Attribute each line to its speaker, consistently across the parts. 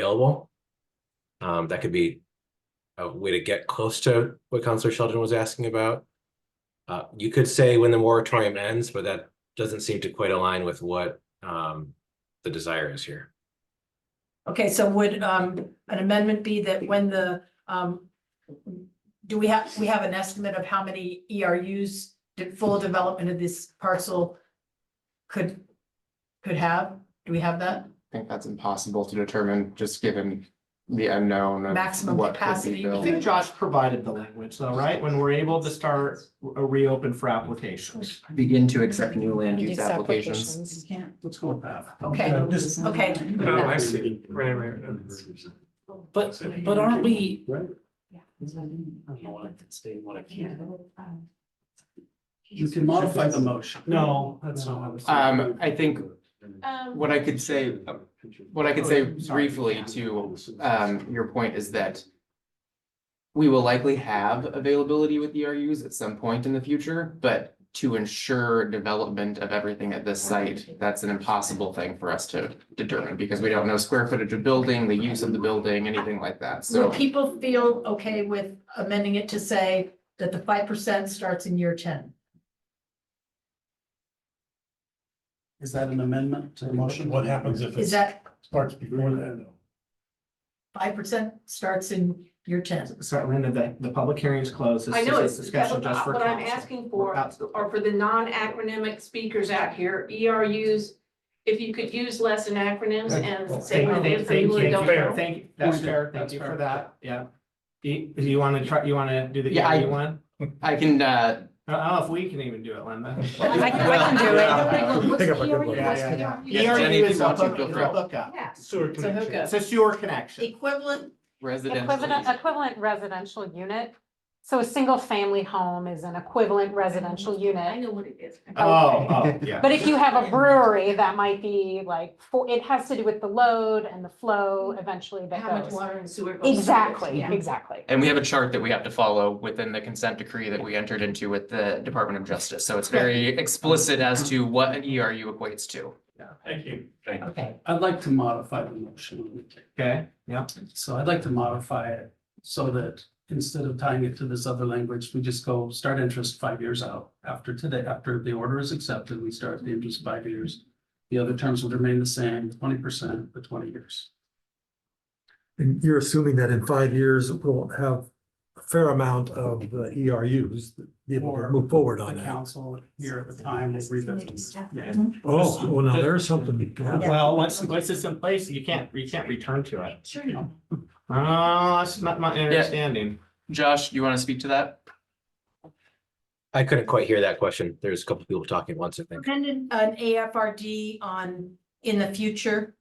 Speaker 1: available. Um, that could be a way to get close to what Counselor Sheldon was asking about. Uh, you could say when the moratorium ends, but that doesn't seem to quite align with what, um, the desire is here.
Speaker 2: Okay, so would um an amendment be that when the um. Do we have, we have an estimate of how many E ERUs the full development of this parcel could could have? Do we have that
Speaker 3: I think that's impossible to determine, just given the unknown. of
Speaker 2: Maximum
Speaker 3: what could be
Speaker 2: capacity.
Speaker 3: built.
Speaker 4: I think Josh provided the language though, right? When we're able to start a reopen for applications.
Speaker 3: Begin to accept new land use applications.
Speaker 4: Let's go with that.
Speaker 2: Okay,
Speaker 4: Yeah, just-
Speaker 2: okay.
Speaker 4: Oh, I see. Right, right, right.
Speaker 5: But, but aren't we,
Speaker 4: You can modify the motion. No, that's not what I was. thinking.
Speaker 3: Um, I think what I could say, what I could say briefly to, um, your point is that we will likely have availability with ERUs at some point in the future, but to ensure development of everything at this site, that's an impossible thing for us to determine because we don't know square footage of building, the use of the building, anything like that.
Speaker 2: Will
Speaker 3: So
Speaker 2: people feel okay with amending it to say that the five percent starts in year ten?
Speaker 4: Is that an amendment to the motion?
Speaker 6: What happens if
Speaker 2: Is
Speaker 6: it
Speaker 2: that
Speaker 6: starts before then?
Speaker 2: five percent starts in year ten?
Speaker 4: So Linda, the, the public hearing is closed. This
Speaker 7: I
Speaker 4: is
Speaker 7: know,
Speaker 4: a
Speaker 7: it's, that's
Speaker 4: Discussion
Speaker 7: what
Speaker 4: just for
Speaker 7: what I'm
Speaker 4: council.
Speaker 7: asking
Speaker 4: We're
Speaker 7: for,
Speaker 4: out to the-
Speaker 7: are for the non-acronymic speakers out here, ERUs. If you could use less acronyms and say what it is for people that don't know.
Speaker 4: Thank you, that's fair, thank you for that, yeah. Do you, do you wanna try, you wanna do the
Speaker 3: Yeah, I-
Speaker 4: ERU one?
Speaker 3: I can, uh,
Speaker 4: I don't know if we can even do it, Linda.
Speaker 3: I can- I can do it.
Speaker 6: Pick up a good one.
Speaker 4: Yeah, yeah, yeah.
Speaker 3: Yeah, Jenny,
Speaker 4: ERU
Speaker 3: if
Speaker 4: is
Speaker 3: you
Speaker 4: a
Speaker 3: want to,
Speaker 4: hook-
Speaker 3: feel
Speaker 4: is
Speaker 3: free.
Speaker 4: a hookup.
Speaker 7: Yes.
Speaker 4: Sewer connection.
Speaker 7: hookup.
Speaker 4: It's a sewer connection.
Speaker 2: Equivalent,
Speaker 8: Equivalent,
Speaker 3: Residential.
Speaker 8: equivalent residential unit. So a single family home is an equivalent
Speaker 2: Mm-hmm.
Speaker 8: residential
Speaker 7: I
Speaker 8: unit.
Speaker 7: know what it is.
Speaker 4: Oh, oh, yeah.
Speaker 8: But if you have a brewery, that might be like, for, it has to do with the load and the flow eventually
Speaker 2: how
Speaker 8: that
Speaker 2: much
Speaker 8: goes.
Speaker 2: water and sewer goes? through it.
Speaker 8: Exactly,
Speaker 2: Yeah.
Speaker 8: exactly.
Speaker 3: And we have a chart that we have to follow within the consent decree that we entered into with the Department of Justice. So it's very explicit as to what an ERU equates to.
Speaker 6: Thank you.
Speaker 2: Okay.
Speaker 9: I'd like to modify the motion.
Speaker 4: Okay, yeah,
Speaker 9: So I'd like to modify it so that instead of tying it to this other language, we just go start interest five years out. After today, after the order is accepted, we start the interest five years. The other terms would remain the same, twenty percent for twenty years.
Speaker 6: And you're assuming that in five years, we'll have a fair amount of uh, ERUs, that be able to move forward
Speaker 9: The
Speaker 6: on that.
Speaker 9: council here at the time will revisit.
Speaker 4: yeah.
Speaker 6: Oh, well, now there's something. yeah.
Speaker 4: Well, once, once it's in place, you can't, you can't return to it.
Speaker 2: Sure.
Speaker 4: Oh, that's not my understanding.
Speaker 3: Josh, you want to speak to that?
Speaker 1: I couldn't quite hear that question. There's a couple people talking at once, I think.
Speaker 2: Dependent an AFRD on, in the future,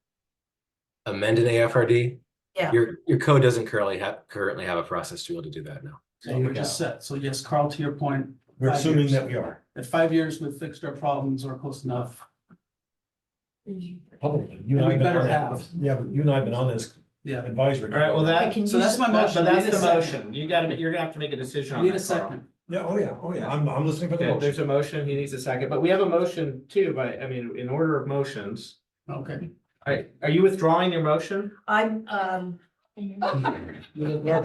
Speaker 1: Amend an AFRD?
Speaker 2: Yeah.
Speaker 1: Your, your code doesn't currently have, currently have a process to be able to do that now.
Speaker 9: So you're just set. So yes, Carl, to your point,
Speaker 6: We're assuming that we are.
Speaker 9: at five years, we've fixed our problems or close enough.
Speaker 6: Probably. You and I
Speaker 9: And
Speaker 6: been
Speaker 9: we
Speaker 6: on
Speaker 9: better
Speaker 6: that-
Speaker 9: have.
Speaker 6: Yeah, but you and I have been on this
Speaker 9: Yeah.
Speaker 6: advisory.
Speaker 4: All right, well,
Speaker 2: I
Speaker 4: that,
Speaker 2: can
Speaker 4: so
Speaker 2: use
Speaker 4: that's my
Speaker 2: it.
Speaker 4: motion,
Speaker 9: But
Speaker 4: that's
Speaker 9: that's
Speaker 4: the
Speaker 9: the
Speaker 4: motion. You gotta, you're gonna have to make a decision
Speaker 9: We
Speaker 4: on
Speaker 9: Need a
Speaker 4: that, Carl.
Speaker 9: second.
Speaker 6: Yeah, oh, yeah, oh, yeah. I'm, I'm listening for the
Speaker 4: Okay,
Speaker 6: motion.
Speaker 4: there's a motion, he needs a second, but we have a motion too, by, I mean, in order of motions.
Speaker 9: Okay.
Speaker 4: Are, are you withdrawing your motion?
Speaker 2: I'm, um,
Speaker 6: Yeah.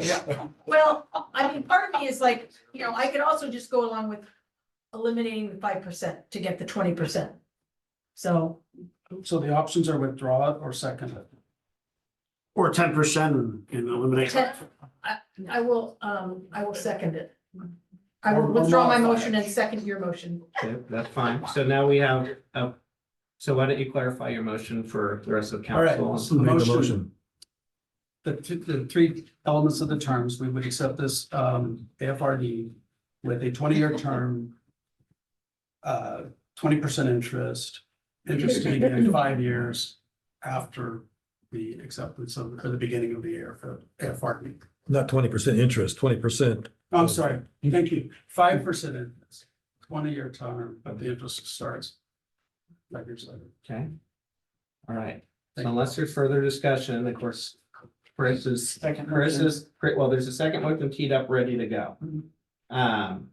Speaker 2: well, I mean, part of me is like, you know, I could also just go along with eliminating the five percent to get the twenty percent. So,
Speaker 9: So the options are withdraw it or second it.
Speaker 6: Or ten percent and eliminate.
Speaker 2: ten- I, I will, um, I will second it. I will withdraw my motion and second your motion.
Speaker 4: Okay, that's fine. So now we have, uh, so why don't you clarify your motion for the rest of
Speaker 9: All right,
Speaker 4: council?
Speaker 9: so the motion, the, th- the three elements of the terms, we would accept this, um, AFRD with a twenty-year term, uh, twenty percent interest, interest to begin in five years after the acceptance of, or the beginning of the year for AFRD.
Speaker 6: Not twenty percent interest, twenty percent.
Speaker 9: I'm sorry, thank you, five percent interest, twenty-year term, but the interest starts five years later.
Speaker 4: Okay. All right, so unless there's further discussion, of course, Chris is,
Speaker 9: Second
Speaker 4: Chris is, well, there's a second motion teed up, ready to go. Um,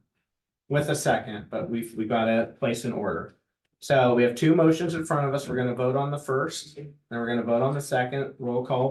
Speaker 4: with a second, but we've, we gotta place an order. So we have two motions in front of us. We're gonna vote on the first, then we're gonna vote on the second. Roll call